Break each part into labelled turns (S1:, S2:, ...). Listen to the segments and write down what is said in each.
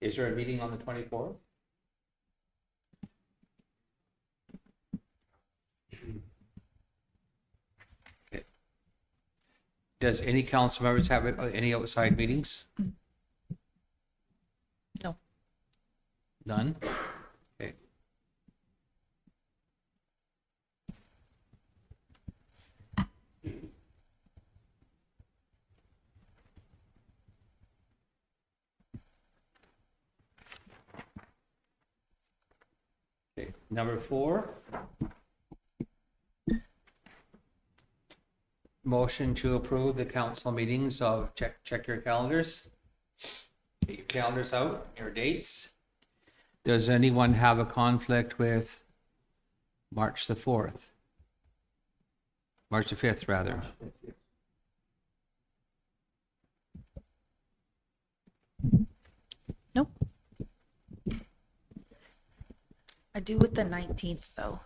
S1: Is there a meeting on the twenty-fourth? Does any council members have uh, any outside meetings?
S2: No.
S1: None? Okay. Okay, Number four. Motion to approve the council meetings of, check, check your calendars. Get your calendars out, your dates. Does anyone have a conflict with March the 4th? March the 5th, rather.
S2: Nope. I do with the 19th, though.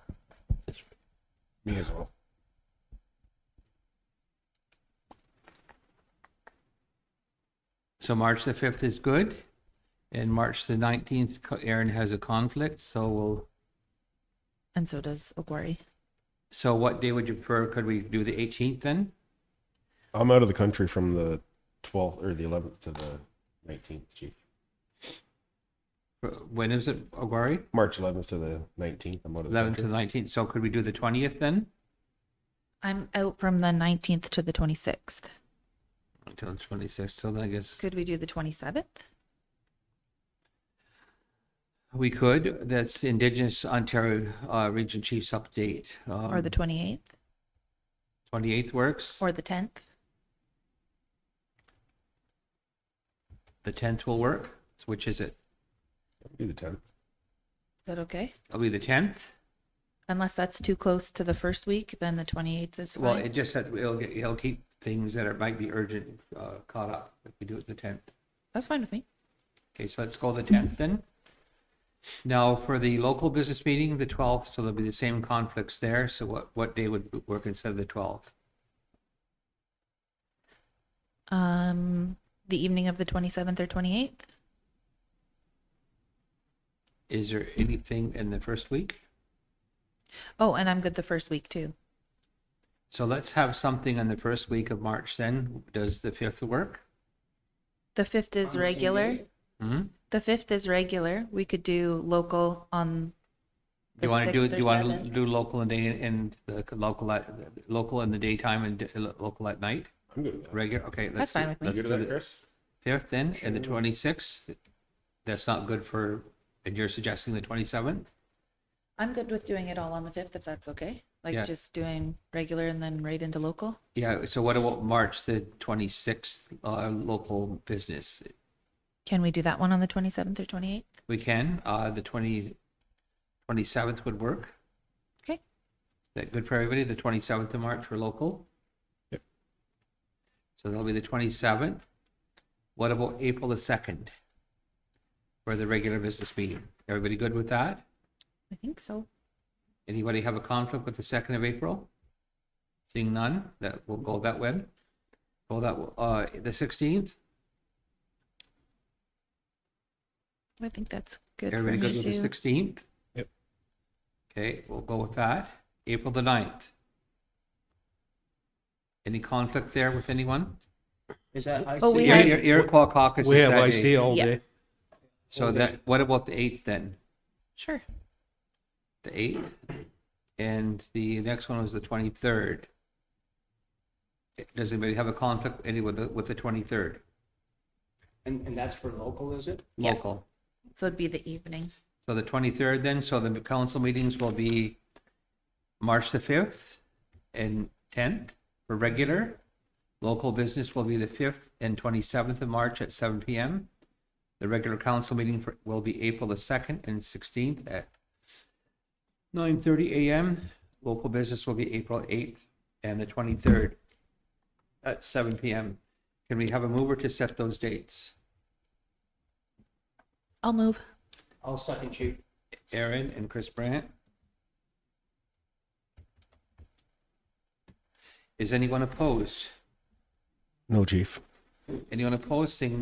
S3: Me as well.
S1: So March the 5th is good. And March the 19th, co- Aaron has a conflict, so we'll,
S2: And so does Ogwari.
S1: so what day would you prefer? Could we do the 18th then?
S3: I'm out of the country from the 12th or the 11th to the 19th, Chief.
S1: When is it, Ogwari?
S3: March 11th to the 19th. I'm out of the
S1: 11th to the
S3: country.
S1: 19th. So could we do the 20th then?
S2: I'm out from the 19th to the 26th.
S1: Until the 26th, so then I guess
S2: Could we do the 27th?
S1: we could. That's Indigenous Ontario uh, Region Chiefs update.
S2: Or
S1: Um.
S2: the 28th?
S1: 28th works.
S2: Or the 10th?
S1: The 10th will work. So Which is it?
S3: Do the 10th.
S2: Is that okay?
S1: It'll be the 10th?
S2: Unless that's too close to the first week, then the 28th is
S1: Well,
S2: fine.
S1: it just said it'll, get- it'll keep things that are, might be urgent uh, caught up if we do it the 10th.
S2: That's fine with me.
S1: Okay, so let's go the 10th then. Now, for the local business meeting, the 12th, so there'll be the same conflicts there. So what, what day would work instead of the 12th?
S2: Um, the evening of the 27th or 28th?
S1: Is there anything in the first week?
S2: Oh, and I'm good the first week too.
S1: So let's have something in the first week of March then. Does the 5th work?
S2: The 5th
S1: Um,
S2: is regular.
S1: Hmm?
S2: The 5th is regular. We could do local on
S1: Do
S2: The
S1: you want to do,
S2: 6th
S1: do
S2: or
S1: you want to
S2: 7th?
S1: do local in day and the local at, local in the daytime and d- local at night?
S3: I'm good with that.
S1: Regular, okay. let's
S2: That's fine
S1: do-
S2: with me.
S3: You
S1: let's
S3: good
S1: do
S3: with that,
S1: the
S3: Chris?
S1: 5th then and the 26th. That's not good for, and you're suggesting the 27th?
S2: I'm good with doing it all on the fifth if that's okay. Like
S1: Yeah.
S2: just doing regular and then right into local.
S1: Yeah, so what about March the 26th, uh, local business?
S2: Can we do that one on the twenty seventh or twenty eighth?
S1: We can, uh, the 20, 27th would work.
S2: Okay.
S1: that good for everybody? The 27th of March for local?
S3: Yep.
S1: So that'll be the 27th. What about April the 2nd? For the regular business meeting? Everybody good with that?
S2: I think so.
S1: Anybody have a conflict with the 2nd of April? Seeing none, that will go that way. Go that, uh, the 16th?
S2: I think that's good. for
S1: Everybody
S2: me
S1: good with
S2: too.
S1: the 16th?
S3: Yep.
S1: Okay, we'll go with that. April the 9th. Any conflict there with anyone?
S4: Is that I
S2: Oh,
S4: see?
S2: We
S1: Ir-
S2: have-
S1: Ir- Iroquois caucus
S5: We
S1: is
S5: have
S1: that
S5: IC
S1: day.
S5: all
S2: Yeah.
S5: day.
S1: So that, what about the 8th then?
S2: Sure.
S1: The 8th? And the next one was the 23rd. Does anybody have a conflict any with the, with the 23rd?
S4: And, and that's for local, is it?
S2: Yeah.
S1: Local.
S2: So it'd be the evening.
S1: So the 23rd then, so the council meetings will be March the 5th and 10th for regular. Local business will be the 5th and 27th of March at 7 PM. The regular council meeting for- will be April the 2nd and 16th at 9:30 AM. Local business will be April 8th and the 23rd at 7 PM. Can we have a mover to set those dates?
S2: I'll move.
S4: I'll second you.
S1: Aaron and Chris Brandt. Is anyone opposed?
S3: No, Chief.
S1: Anyone opposed? Seeing